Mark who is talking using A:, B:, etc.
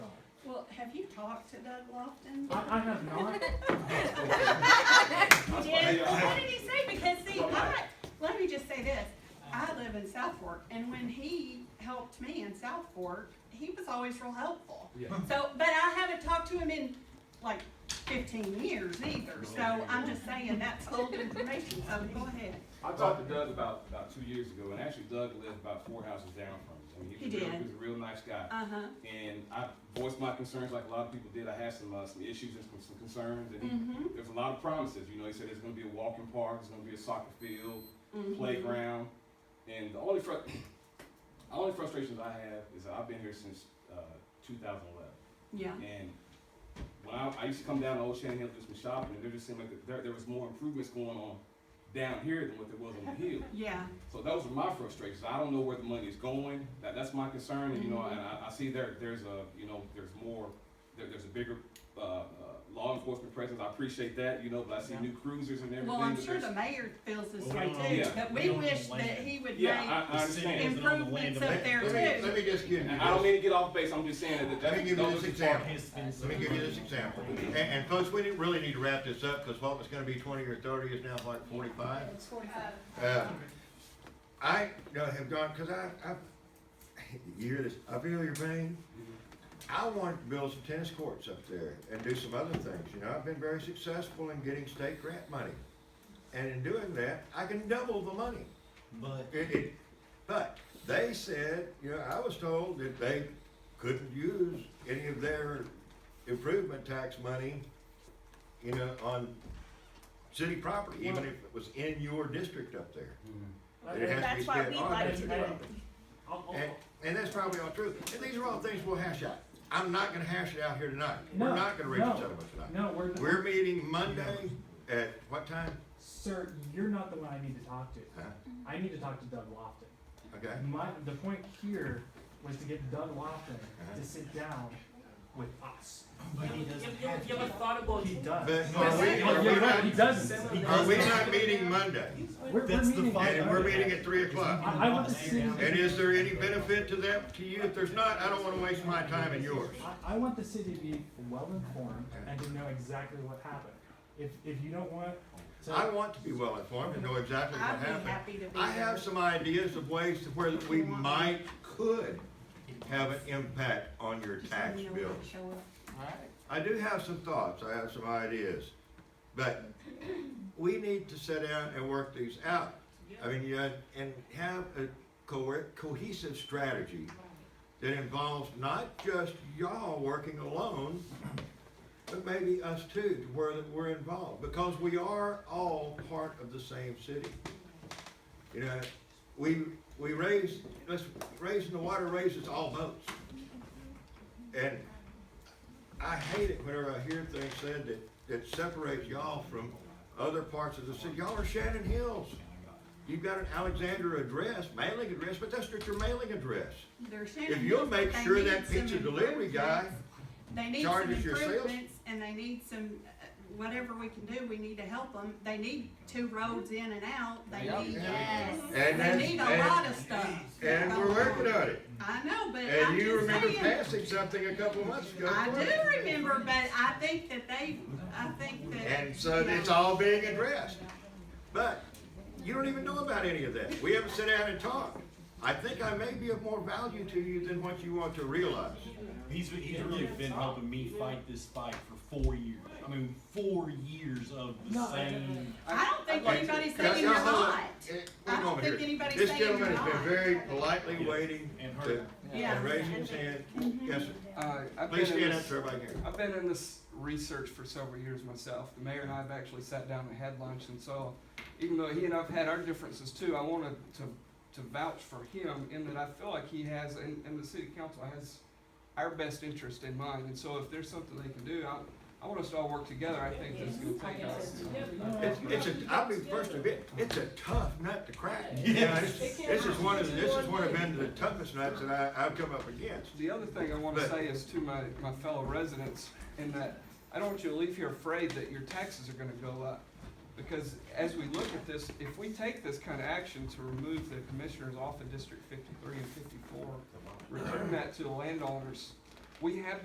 A: Have you talked to Doug Lofton?
B: I, I have not.
A: You did? What did he say? Because see, I, let me just say this, I live in South Fork, and when he helped me in South Fork, he was always real helpful.
B: Yeah.
A: So, but I haven't talked to him in like fifteen years either, so I'm just saying that's old information, so go ahead.
C: I talked to Doug about, about two years ago, and actually Doug lived about four houses down from us. I mean,
A: He
C: was a real-
A: did.
C: He was a real nice guy.
A: Uh-huh,
C: And I voiced my concerns like a lot of people did. I had some, uh, some issues and some- some concerns, and he,
A: mhm,
C: there's a lot of promises. You know, he said there's gonna be a walking park, there's gonna be a soccer field,
A: mhm.
C: playground. And the only fru- the only frustrations I have is that I've been here since, uh, two thousand eleven.
A: Yeah,
C: And when I, I used to come down to Old Shannon Hill to do some shopping, and there just seemed like there, there was more improvements going on down here than what there was on the hill.
A: yeah,
C: So those are my frustrations. I don't know where the money is going. That, that's my concern, and you know, and I,
A: Mm-hmm.
C: I see there, there's a, you know, there's more, there, there's a bigger, uh, uh, law enforcement presence. I appreciate that, you know, but I see new cruisers and everything.
A: well, I'm
C: but
A: sure the
C: there's-
A: mayor feels this
D: Well,
A: way
D: we
A: too,
C: own-
A: but
D: we
A: we
D: own the
A: wish that
D: land.
A: he would make
C: Yeah, I, I
D: The city
C: understand.
D: is- on the land
A: improvements
D: of-
A: up there
E: Let me,
A: too.
E: let me just give you
C: And I don't
E: this,
C: mean to get off base. I'm just saying that. that
E: let me give you
C: those
E: this
C: are-
E: example.
D: Has been-
E: Let me give you this example. And, and folks, we didn't really need to wrap this up, because what was gonna be twenty or thirty is now like forty-five.
A: It's forty-five.
E: Uh, I you know, have gone, because I, I, you hear this, I feel your pain. I wanted to build some tennis courts up there and do some other things, you know, I've been very successful in getting state grant money. And in doing that, I can double the money.
D: But
E: It, it, Eh, but they said, you know, I was told that they couldn't use any of their improvement tax money, you know, on city property, even if it was in your district up there. It has to be
F: That's why
E: spent
F: we
E: on
F: like
E: district
F: to do it.
E: property.
B: I'll- I'll-
E: And, and that's probably all true, and these are all things we'll hash out. I'm not gonna hash it out here tonight, we're
B: No,
E: not gonna reach a
B: no,
E: settlement tonight.
B: No, we're, the-
E: We're meeting Monday at what time?
B: sir, you're not the one I need to talk to.
E: Huh?
B: I need to talk to Doug Lofton.
E: Okay,
B: My, the point here was to get Doug Lofton
E: Uh-huh.
B: to sit down with us.
D: but he doesn't have
G: You ever
D: to.
G: thought about
B: He does.
E: but
B: Oh,
E: are we, are we
B: You're right, he
E: not,
B: doesn't. He
E: are we
B: doesn't.
E: not meeting Monday?
B: We're, we're
D: That's the
B: meeting.
D: fight.
E: And we're meeting at three o'clock.
B: I, I want to see.
E: And is there any benefit to that, to you? If there's not, I don't wanna waste my time and yours.
B: I, I want the city to be well informed and to know exactly what happened. If, if you don't want to.
E: I want to be well informed and know exactly what
A: I'd be
E: happened.
A: happy to be
E: I have
A: there.
E: some ideas of ways to where that we might, could have an impact on your
A: Just let
E: tax
A: me know when
E: bill.
A: I show up.
E: I do have some thoughts, I have some ideas, but we need to sit down and work these out. I mean, yeah, and have a co- cohesive strategy that involves not just y'all working alone, but maybe us too, to where that we're involved, because we are all part of the same city. You know, we, we raise, let's, raising the water raises all boats. And I hate it whenever I hear things said that, that separates y'all from other parts of the city. Y'all are Shannon Hills. You've got an Alexander address, mailing address, but that's not your mailing address.
A: They're sharing
E: If you'll
A: this,
E: make
A: but they
E: sure
A: need
E: that
A: some
E: pizza delivery guy,
A: improvements. They need some
E: charges your sales-
A: improvements and they need some, uh, whatever we can do, we need to help them. They need two roads in and out, they
C: Yeah.
A: need,
G: Yes.
E: and
A: they
E: that's,
A: need a lot
E: and,
A: of stuff.
E: and we're working on it.
A: I know, but I'm
E: And you remember
A: just saying,
E: passing something a couple months ago.
A: I do remember, but I think that they, I think that.
E: And so it's all being addressed. But you don't even know about any of that. We haven't sat down and talked. I think I may be of more value to you than what you want to realize.
D: He's, he's really been helping me fight this fight for four years. I mean, four years of the
B: No,
D: same.
A: I don't think
E: Like,
A: anybody's
E: now,
A: saying you're
E: now, hold on.
A: not.
E: Eh, wait a
A: I don't
E: moment
A: think
E: here.
A: anybody's
E: This
A: saying
E: gentleman
A: you're
E: has been
A: not.
E: very politely waiting
D: And
E: to,
D: her.
E: and
A: Yeah,
E: raising his hand. Yes, sir.
H: Uh, I've
E: Please
H: been in
E: stand up
H: this,
E: so everybody can hear.
H: I've been in this research for several years myself. The mayor and I have actually sat down and had lunch, and so even though he and I've had our differences too, I wanted to to vouch for him in that I feel like he has, and, and the city council has our best interest in mind. And so if there's something they can do, I, I want us to all work together. I think this is going to take us.
E: It's, it's a, I'll be first to admit, it's a tough nut to crack. You know,
D: Yes.
E: This this is one of, this is one of been the toughest nuts that I, I've come up against.
H: The other thing I want to
E: But-
H: say is to my, my fellow residents, in that I don't want you to leave here afraid that your taxes are gonna go up. Because as we look at this, if we take this kind of action to remove the commissioners off of District fifty-three and fifty-four, return that to the landowners, we have